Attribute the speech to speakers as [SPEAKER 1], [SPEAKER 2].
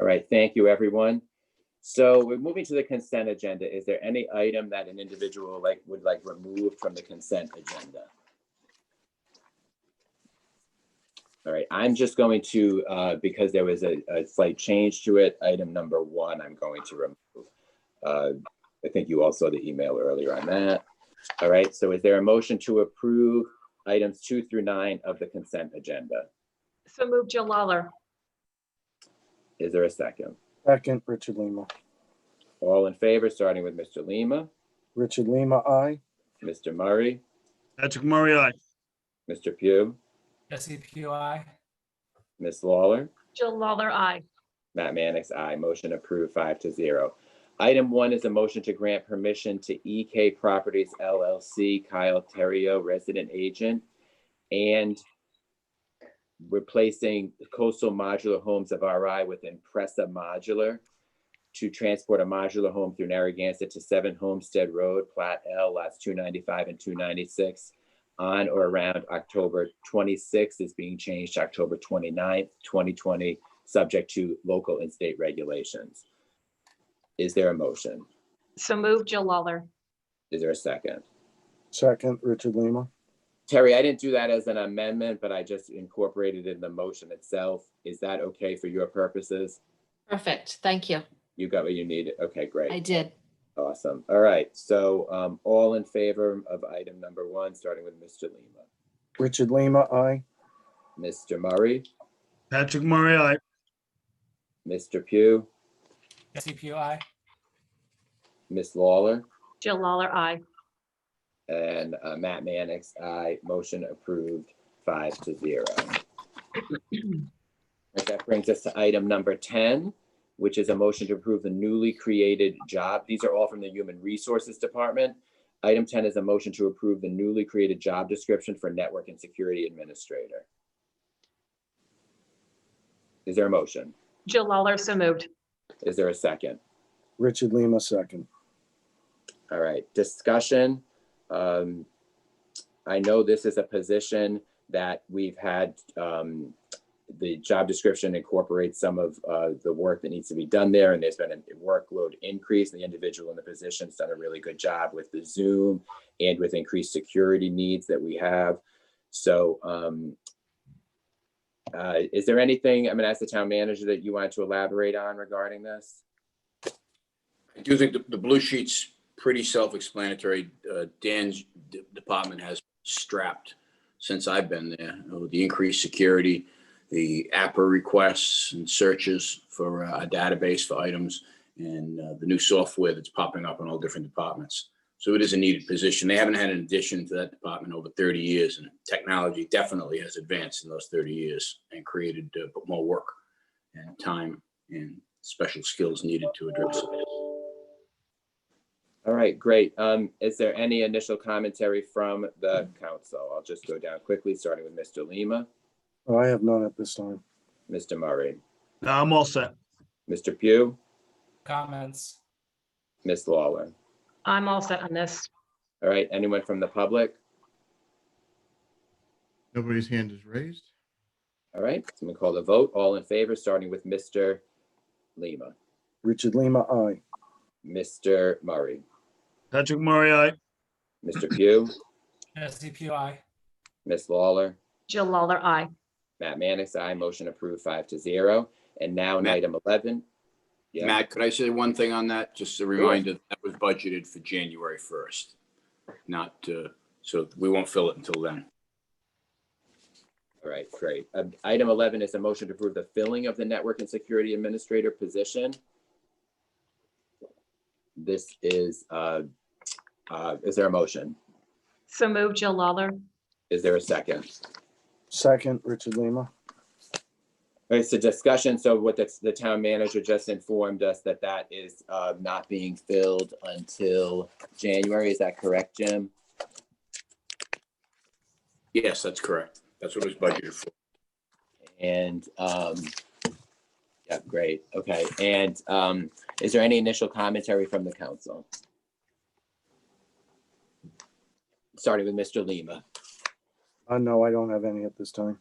[SPEAKER 1] All right, thank you, everyone. So we're moving to the consent agenda. Is there any item that an individual like would like removed from the consent agenda? All right, I'm just going to, uh, because there was a a slight change to it, item number one, I'm going to remove. Uh, I think you all saw the email earlier on that. All right, so is there a motion to approve items two through nine of the consent agenda?
[SPEAKER 2] So move Jill Lawler.
[SPEAKER 1] Is there a second?
[SPEAKER 3] Second, Richard Lima.
[SPEAKER 1] All in favor, starting with Mr. Lima,
[SPEAKER 3] Richard Lima, aye.
[SPEAKER 1] Mr. Murray,
[SPEAKER 4] Patrick Murray, aye.
[SPEAKER 1] Mr. Pugh,
[SPEAKER 5] Jesse PUI,
[SPEAKER 1] Ms. Lawler,
[SPEAKER 2] Jill Lawler, aye.
[SPEAKER 1] Matt Mannix, aye. Motion approved five to zero. Item one is a motion to grant permission to EK Properties LLC, Kyle Terrio, resident agent, and replacing coastal modular homes of RI with Impressa Modular to transport a modular home through Narragansett to Seven Homestead Road, Plat L, lots two ninety-five and two ninety-six on or around October twenty-sixth is being changed to October 29th, twenty, subject to local and state regulations. Is there a motion?
[SPEAKER 2] So move Jill Lawler.
[SPEAKER 1] Is there a second?
[SPEAKER 3] Second, Richard Lima.
[SPEAKER 1] Terry, I didn't do that as an amendment, but I just incorporated it in the motion itself. Is that okay for your purposes?
[SPEAKER 6] Perfect. Thank you.
[SPEAKER 1] You got what you needed? Okay,
[SPEAKER 6] I
[SPEAKER 1] great.
[SPEAKER 6] did.
[SPEAKER 1] Awesome. All right. So um, all in favor of item number one, starting with Mr. Lima,
[SPEAKER 3] Richard Lima, aye.
[SPEAKER 1] Mr. Murray,
[SPEAKER 4] Patrick Murray, aye.
[SPEAKER 1] Mr. Pugh,
[SPEAKER 5] Jesse PUI,
[SPEAKER 1] Ms. Lawler,
[SPEAKER 2] Jill Lawler, aye.
[SPEAKER 1] and uh, Matt Mannix, aye. Motion approved five to zero. Right, That brings us to item number 10, which is a motion to approve the newly created job. These are all from the Human Resources Department. Item 10 is a motion to approve the newly created job description for Network and Security Administrator. Is there a motion?
[SPEAKER 2] Jill Lawler, so moved.
[SPEAKER 1] Is there a second?
[SPEAKER 3] Richard Lima, second.
[SPEAKER 1] All right, discussion. Um, I know this is a position that we've had, um, the job description incorporates some of, uh, the work that needs to be done there, and there's been a workload increase. The individual in the position's done a really good job with the Zoom and with increased security needs that we have. So, um, uh, is there anything, I'm gonna ask the town manager that you wanted to elaborate on regarding this?
[SPEAKER 7] I do think the, the blue sheet's pretty self-explanatory. Uh, Dan's d- department has strapped since I've been there. You know, The increased security, the APA requests and searches for uh, a database for items and uh, the new software that's popping up in all different departments. So it is a needed position. They haven't had an addition to that department over 30 years and technology definitely has advanced in those 30 years and created uh, more work and time and special skills needed to address it.
[SPEAKER 1] All right, great. Um, is there any initial commentary from the council? I'll just go down quickly, starting with Mr. Lima,
[SPEAKER 3] Oh, I have none at this time.
[SPEAKER 1] Mr. Murray,
[SPEAKER 4] No, I'm all set.
[SPEAKER 1] Mr. Pugh,
[SPEAKER 5] comments,
[SPEAKER 1] Ms. Lawler.
[SPEAKER 2] I'm all set on this.
[SPEAKER 1] All right, anyone from the public?
[SPEAKER 8] Nobody's hand is raised.
[SPEAKER 1] All right, so we call the vote. All in favor, starting with Mr. Lima,
[SPEAKER 3] Richard Lima, aye.
[SPEAKER 1] Mr. Murray,
[SPEAKER 4] Patrick Murray, aye.
[SPEAKER 1] Mr. Pugh,
[SPEAKER 5] Jesse PUI,
[SPEAKER 1] Ms. Lawler,
[SPEAKER 2] Jill Lawler, aye.
[SPEAKER 1] Matt Mannix, I motion approved five to zero. And now on
[SPEAKER 7] Matt-
[SPEAKER 1] item eleven. Yeah.
[SPEAKER 7] Matt, could I say one thing on that? Just a reminder, that was budgeted for January 1st, not, uh, so we won't fill it until then.
[SPEAKER 1] All right, great. Um, Item eleven is a motion to approve the filling of the Network and Security Administrator position. This is, uh, uh, is there a motion?
[SPEAKER 2] So move Jill Lawler.
[SPEAKER 1] Is there a second?
[SPEAKER 3] Second, Richard Lima.
[SPEAKER 1] All right, so discussion, so what the, the town manager just informed us that that is uh, not being filled until January, is that correct, Jim?
[SPEAKER 7] Yes, that's correct. That's what it was budgeted for.
[SPEAKER 1] And, um, yeah, great, okay. And um, is there any initial commentary from the council? Starting with Mr. Lima.
[SPEAKER 3] Uh, no, I don't have any at this time.